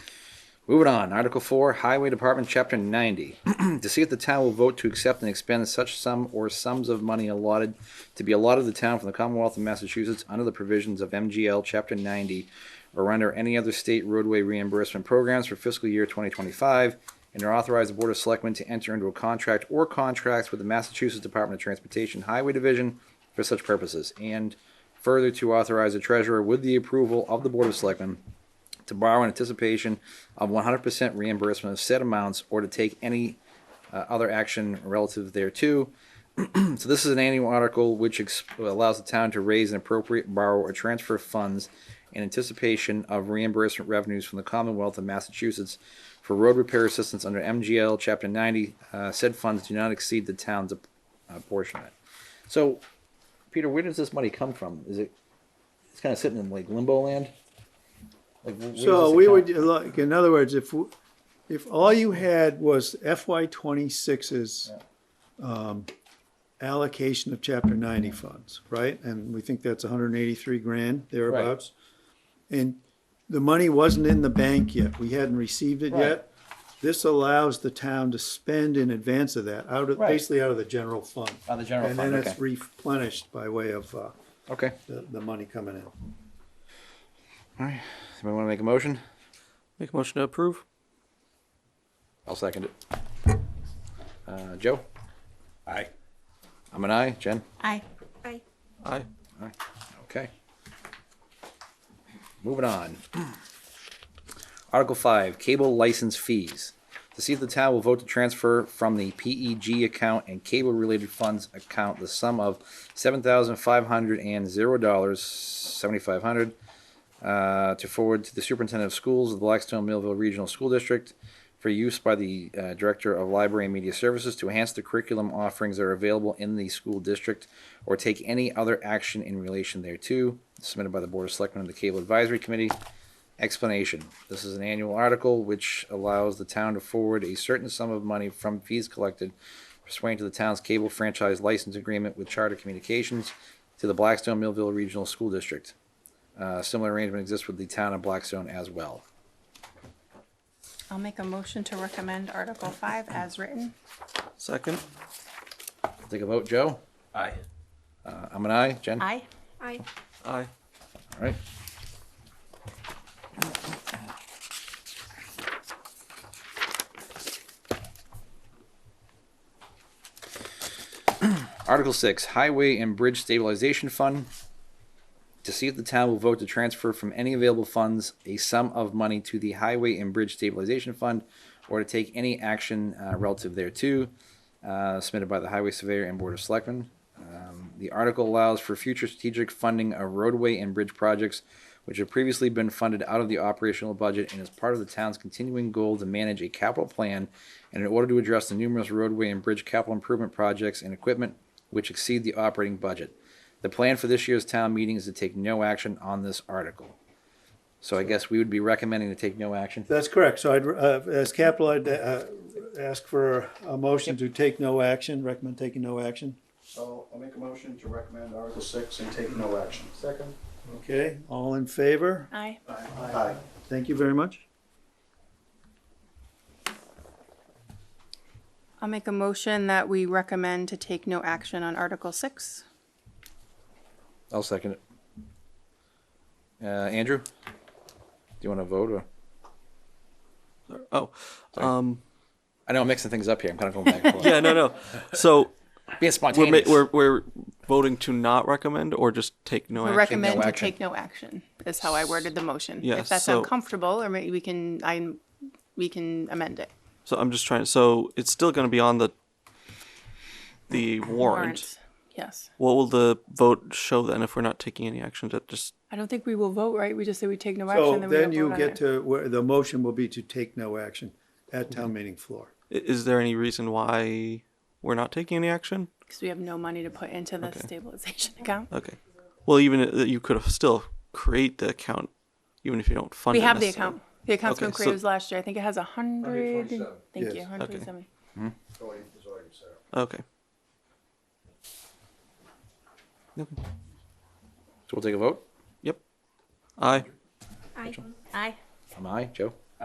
Moving on, Article 4, Highway Department, Chapter 90. to see if the town will vote to accept and expend such sum or sums of money allotted to be allotted to the town from the Commonwealth of Massachusetts under the provisions of MGL Chapter 90 or under any other state roadway reimbursement programs for fiscal year 2025 and to authorize the Board of Selectmen to enter into a contract or contracts with the Massachusetts Department of Transportation Highway Division for such purposes and further to authorize the treasurer with the approval of the Board of Selectmen to borrow in anticipation of 100% reimbursement of said amounts or to take any uh, other action relative thereto. so this is an annual article which ex- allows the town to raise and appropriate borrow or transfer funds in anticipation of reimbursement revenues from the Commonwealth of Massachusetts for road repair assistance under MGL Chapter 90. Uh, said funds do not exceed the town's uh, portion of it. So, Peter, where does this money come from? Is it it's kind of sitting in like limbo land? Like, wh- where does So this we account- would, like, in other words, if, w- if all you had was FY 26's um, allocation of chapter ninety funds, right? And we think that's hundred and eighty-three grand thereabouts. And the money wasn't in the bank yet. We hadn't received it Right. yet. This allows the town to spend in advance of that, out of, Right. basically out of the general fund. Out of the general fund, And then it's okay. replenished by way of uh, Okay. the, the money coming in. All right. Somebody want to make a motion? Make a motion to approve. I'll second it. Uh, Joe? Aye. I'm an aye. Jen? Aye. Aye. Aye. Okay. Moving on. Article five, cable license fees. To see if the town will vote to transfer from the PEG account and cable-related funds account the sum of seven thousand five hundred and zero dollars, seventy-five hundred, uh, to forward to the superintendent of schools of the Blackstone Millville Regional School District for use by the uh, Director of Library and Media Services to enhance the curriculum offerings that are available in the school district or take any other action in relation thereto, submitted by the Board of Selectmen and the Cable Advisory Committee. Explanation. This is an annual article which allows the town to forward a certain sum of money from fees collected pursuant to the town's cable franchise license agreement with Charter Communications to the Blackstone Millville Regional School District. Uh, similar arrangement exists with the town of Blackstone as well. I'll make a motion to recommend Article Five as written. Second. Take a vote, Joe? Aye. Uh, I'm an aye. Jen? Aye. Aye. Aye. All right. Article six, Highway and Bridge Stabilization Fund. To see if the town will vote to transfer from any available funds a sum of money to the Highway and Bridge Stabilization Fund or to take any action uh, relative thereto, uh, submitted by the Highway Surveyor and Board of Selectmen. Um, the article allows for future strategic funding of roadway and bridge projects which have previously been funded out of the operational budget and is part of the town's continuing goal to manage a capital plan and in order to address the numerous roadway and bridge capital improvement projects and equipment which exceed the operating budget. The plan for this year's town meeting is to take no action on this article. So I guess we would be recommending to take no action. That's correct. So I'd, uh, as capital, I'd, uh, ask for a motion to take no action, recommend taking no action. So I'll make a motion to recommend Article six and take no action. Second. Okay, all in favor? Aye. Aye. Thank you very much. I'll make a motion that we recommend to take no action on Article Six. I'll second it. Uh, Andrew? Do you want to vote or? Oh, um, I know I'm mixing things up here. I'm kind of going back and forth. yeah, no, no. So Being we're, ma- spontaneous. we're we're voting to not recommend or just take no We action. recommend to action. take no action, is how I worded the motion. Yeah, If that's so- uncomfortable, or maybe we can, I, we can amend it. So I'm just trying. So it's still going to be on the the warrant. Warrant. Yes. What will the vote show then if we're not taking any action? That just I don't think we will vote, right? We just say we take no So action, then we then don't you vote on get it. to, where the motion will be to take no action at town meeting floor. i- is there any reason why we're not taking any action? Because we have no money to put into the stabilization account. Okay. Well, even i- you could have still create the account, even if you don't fund. We it have the necessarily. account. The account's Okay, been so- created last year. I think it has a hundred, and- 127. thank Yes. you, hundred twenty-seven. Going is already set. Okay. So we'll take a vote. Yep. Aye. Aye. I'm aye. Joe?